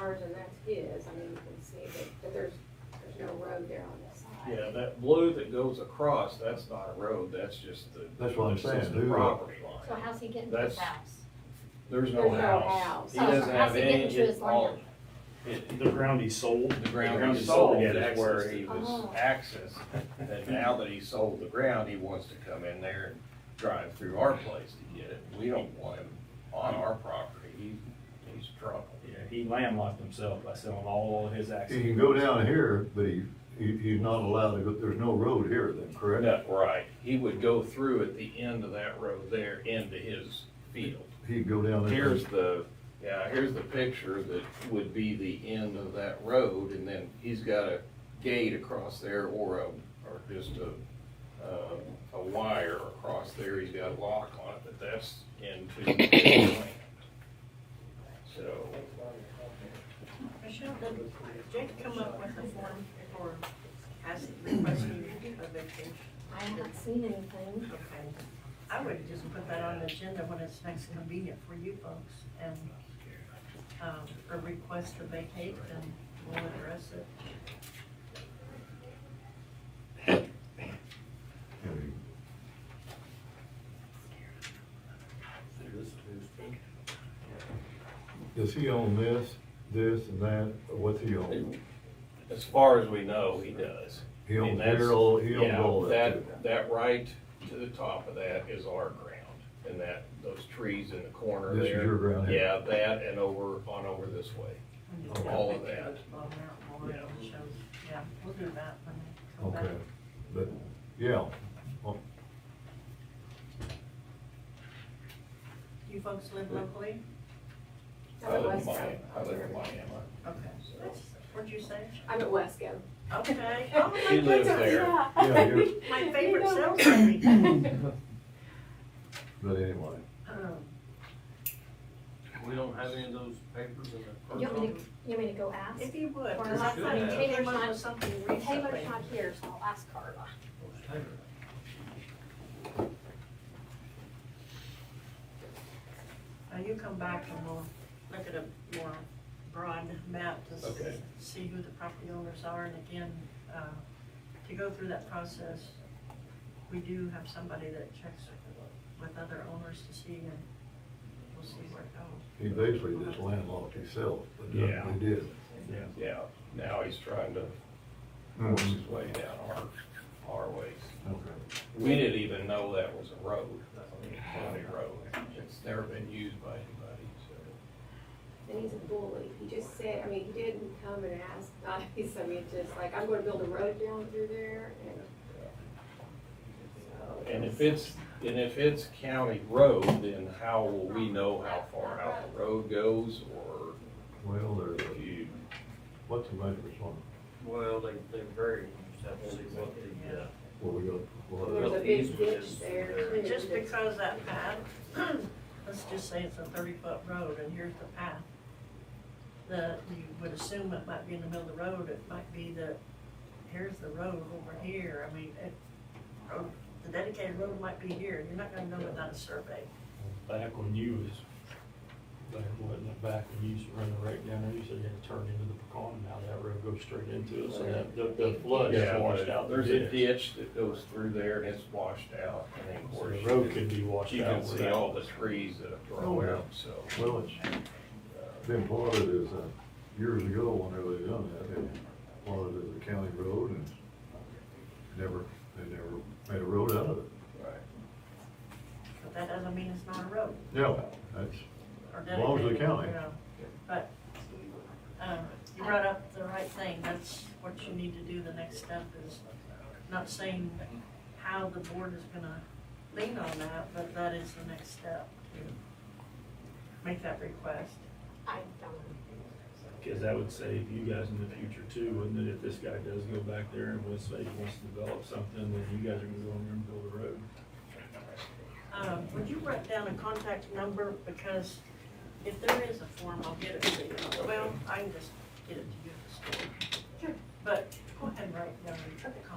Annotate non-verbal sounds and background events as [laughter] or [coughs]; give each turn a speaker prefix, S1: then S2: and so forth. S1: ours and that's his, I mean, you can see that, that there's, there's no road there on this side.
S2: Yeah, that blue that goes across, that's not a road, that's just the.
S3: That's what I'm
S2: that's just
S3: saying,
S2: The
S3: do-
S2: property
S4: So
S2: line.
S4: how's he getting to his
S2: That's-
S4: house?
S2: There's no
S1: There's no
S2: house.
S1: house.
S2: He
S4: Oh, so
S2: doesn't
S4: how's
S2: have
S4: he getting
S2: any,
S4: to his
S2: it- all,
S4: land?
S5: It- The ground he sold.
S2: the ground he
S5: he
S2: sold
S5: yeah,
S2: is
S5: that's
S2: where
S5: access
S2: he
S5: to-
S2: was
S4: Oh.
S2: accessed. And now that he sold the ground, he wants to come in there and drive through our place to get it. We don't want him on our property. He's, he's trouble.
S5: Yeah, he landlocked himself by selling all of his
S3: He
S5: access.
S3: can go down here, but he, he, he's not allowed to go, there's no road here then, correct?
S2: No, right. He would go through at the end of that road there into his field.
S3: He can go down there.
S2: Here's the, yeah, here's the picture that would be the end of that road, and then he's got a gate across there or a, or just a, um, a wire across there, he's got a lock on it, but that's into
S3: [coughs]
S2: his land. So,
S6: Michelle, did Jake come up with a form for asking, requesting a vacation?
S4: I have not seen anything.
S6: Okay. I would just put that on the agenda when it's next convenient for you folks and, um, or request to vacate and we'll address it.
S3: I mean, Does he own this, this and that, or what's he own?
S2: as far as we know, he does.
S3: He
S2: I mean,
S3: owns
S2: that's-
S3: here, all- he owns
S2: yeah,
S3: all that too.
S2: That right to the top of that is our ground, and that, those trees in the corner there.
S3: This is your ground here.
S2: Yeah, that and over, on over this way. All of that.
S6: Well, now, we'll let it show. Yeah, we'll do that when they come back.
S3: Okay, but, yeah,
S6: You folks live locally?
S2: I
S1: I'm at
S2: live
S1: Wesco.
S2: in Miami, I live in Miami.
S6: Okay. What'd
S2: [laughs]
S6: you say?
S1: I'm at Wesco.
S6: Okay. [laughs] Oh, my
S2: She lives
S6: goodness.
S2: there.
S3: Yeah, you're-
S6: [laughs] My favorite
S1: [laughs]
S6: sales [laughs] lady.
S1: lady.
S3: but anyway,
S6: Um,
S7: We don't have any of those papers in the.
S4: You want me to, you want me to go ask?
S6: If you would,
S4: Or
S6: because I
S4: not
S6: thought you
S4: good.
S6: came up with something
S4: Taylor's
S6: recently.
S4: not here, so I'll ask Carla.
S6: Now you come back and we'll look at a more broad map to s-
S2: Okay.
S6: see who the property owners are. And again, uh, to go through that process, we do have somebody that checks with other owners to see and we'll see where it goes.
S3: he basically just landlocked himself, but
S2: Yeah.
S3: he did.
S5: Yeah.
S2: Yeah, now he's trying to force
S3: Mhm.
S2: his way down our, our ways.
S3: Okay.
S2: We didn't even know that was a road, I mean, a county road. It's never been used by anybody, so.
S1: And he's a bully. He just said, I mean, he didn't come and ask nice. [laughs] I mean, just like, I'm gonna build a road down through there and. so-
S2: And if it's, and if it's county road, then how will we know how far out the road goes or
S3: Well, there's,
S2: if
S3: a-
S2: you,
S3: what's the measurements on,
S7: Well, they, they vary, you just have to see what the, uh,
S3: what we got? what-
S1: There's a big ditch there too.
S6: And just
S1: that's-
S6: because that path, [clears throat] let's just say it's a thirty-foot road and here's the path. The, you would assume it might be in the middle of the road, it might be that, here's the road over here, I mean, it, road- the dedicated road might be here, you're not gonna know without a survey.
S8: Back when you was, back when, back when you used to run the rake down there, you said you had to turn into the pecan, now that road goes straight into it, so that, the, the flood
S2: yeah,
S8: is washed out. the
S2: there's a
S8: ditch.
S2: ditch that goes through there and it's washed out. And then of
S8: So
S2: course
S8: the
S2: you
S8: road
S2: can-
S8: can be washed
S2: You
S8: out.
S2: can see all the trees that have
S3: Oh,
S2: grown
S3: yeah.
S2: up, so. Uh,
S3: Well, it's been plotted as a, uh, years ago, whenever they done that, they plotted as a county road and never, they never made a road out of it.
S2: Right.
S6: But that doesn't mean it's not a road.
S3: Yeah, that's,
S6: or
S3: As long as they
S6: dedicated,
S3: count it.
S6: you know, But, um, you brought up the right thing, that's what you need to do, the next step is, not saying how the board is gonna lean on that, but that is the next step to make that request.
S4: I don't,
S8: Cause that would save you guys in the future too, wouldn't it, if this guy does go back there and West Lake wants to develop something, then you guys are gonna go in there and build a road.
S6: Um, would you write down a contact number, because if there is a form, I'll get it to you, well, I can just get it to you at the store. But go ahead and write down the